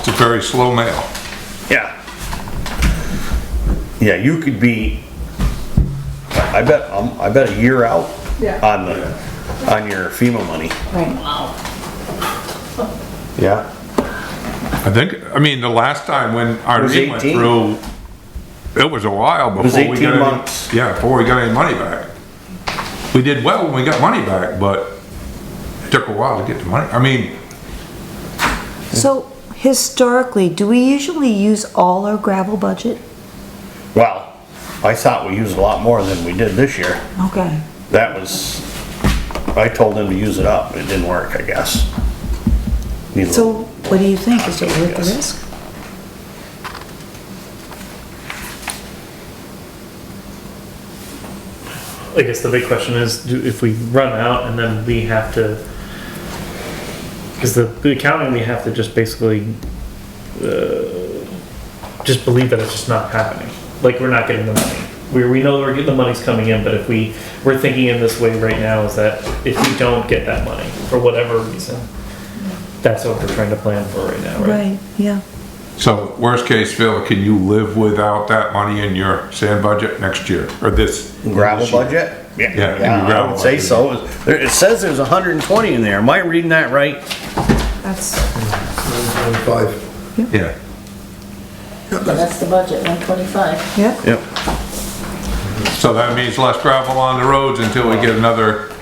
It's a very slow mail. Yeah. Yeah, you could be, I I bet, um, I bet a year out Yeah. on the, on your FEMA money. Right. Yeah. I think, I mean, the last time when was Irene went 18. through, it was a while before we was got any. 18 months. Yeah, before we got any money back. We did well when we got money back, but it took a while to get the money. I mean, So historically, do we usually use all our gravel budget? Well, I thought we used a lot more than we did this year. Okay. That was, I told him to use it up, it didn't work, I guess. Needs a So little- what do you think? Is it worth the risk? I guess the big question is, do, if we run out and then we have to, because the, the accounting, we have to just basically, uh, just believe that it's just not happening. Like, we're not getting the money. We, we know we're getting, the money's coming in, but if we, we're thinking in this way right now is that if we don't get that money, for whatever reason, that's what we're trying to plan for right now, right? Right, yeah. so worst case, Phil, can you live without that money in your sand budget next year or this? Gravel this year? budget? Yeah, Yeah, I gravel would say budget. so. There- It says there's hundred and twenty in there, am I reading that right? That's, Five. Yeah. That's the budget, 125. yeah, Yep. So that means less gravel on the roads until we get another,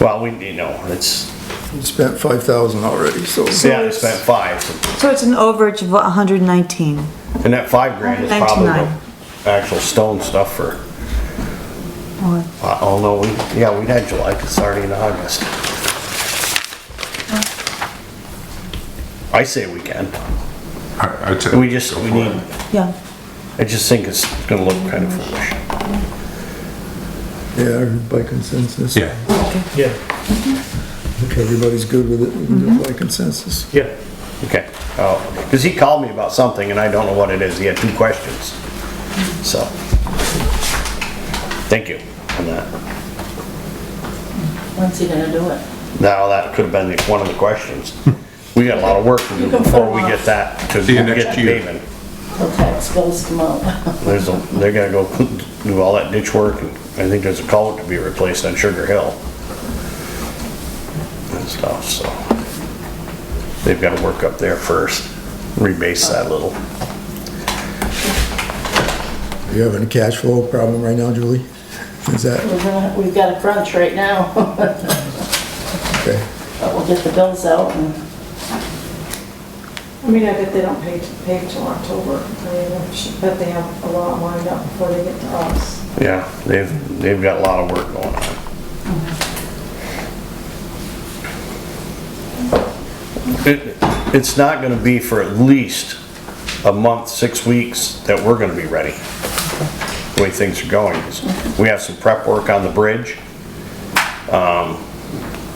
Well, we, you know, it's, We Spent five thousand already, so. yeah, they spent five, so it's an overage of 119. and that five grand is probably Ninety-nine. the actual stone stuff for, Or- uh, oh no, we, yeah, we had July, 'cause it's already in August. I say we can, I- I'd say, we just, we need, Yeah, I just think it's gonna look kind of foolish. Yeah, by consensus. yeah. Yeah, If everybody's good with it, we can do it by consensus. yeah. Okay, oh, because he called me about something and I don't know what it is, he had two questions, so. Thank you on that. When's he gonna do it? Now, that could have been the- one of the questions. We got a lot of work to do before we get that to See you get next the year. paving. Till tax bills come out. There's, a- they're gonna go do all that ditch work and I think there's a culvert to be replaced on Sugar Hill. And stuff, so. They've gotta work up there first, rebase that a little. Are you having a cash flow problem right now, Julie? Is that, We're gonna, we've got a crunch right now, but okay, we'll get the bills out and, I mean, I bet they don't pay, pay till October. I mean, I should bet they have a lot lined up before they get to us. Yeah, they've, they've got a lot of work going on. It, it's not gonna be for at least a month, six weeks that we're gonna be ready. The way things are going, we have some prep work on the bridge.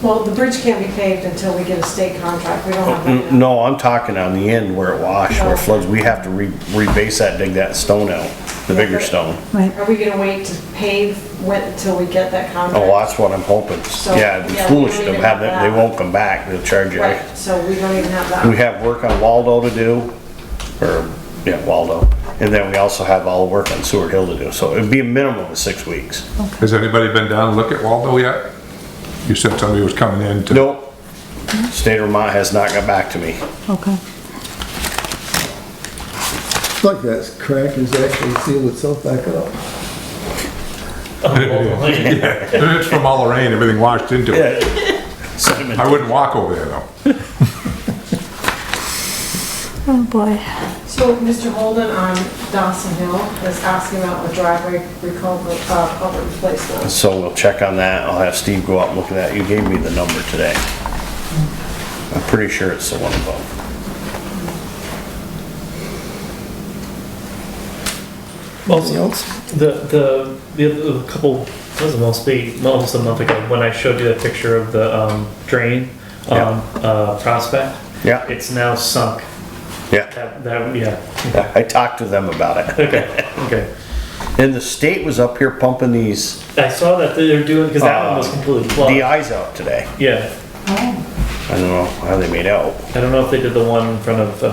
Well, the bridge can't be paved until we get a state contract. We don't have that. yet. No, I'm talking on the end where it washed, where it floods, we have to re, rebase that, dig that stone out, the bigger stone. right. Are we gonna wait to pave when, until we get that contract? Oh, that's what I'm hoping. Yeah, it'd be So, yeah, we foolish don't to even have have them, they that. won't come back, they'll charge you. Right, so we don't even have We that. have work on Waldo to do, or, yeah, Waldo, and then we also have all the work on Seward Hill to do, so it'd be a minimum of six weeks. Has anybody been down to look at Waldo yet? You said somebody was coming in to. Nope, state of Vermont has not got back to me. okay. look, that crack has actually sealed itself back up. It's from all the rain, everything washed into it. I Sediment. wouldn't walk over there though. Oh, boy. So Mr. Holden on Dawson Hill is asking about the driveway recul, uh, culvert replacement. So we'll check on that, I'll have Steve go out and look at that, you gave me the number today. I'm pretty sure it's the one above. Anything else? The, the, the other- a couple, it was almost be, almost a month ago, when I showed you that picture of the um, drain Yeah. on uh, Prospect. Yeah. It's now sunk. Yeah, That, that, yeah, I talked to them about it, okay, okay. and the state was up here pumping these uh, I saw that they're doing, because that one was completely plugged. DI's out today. Yeah, I don't know how they made out. I don't know if they did the one in front of uh,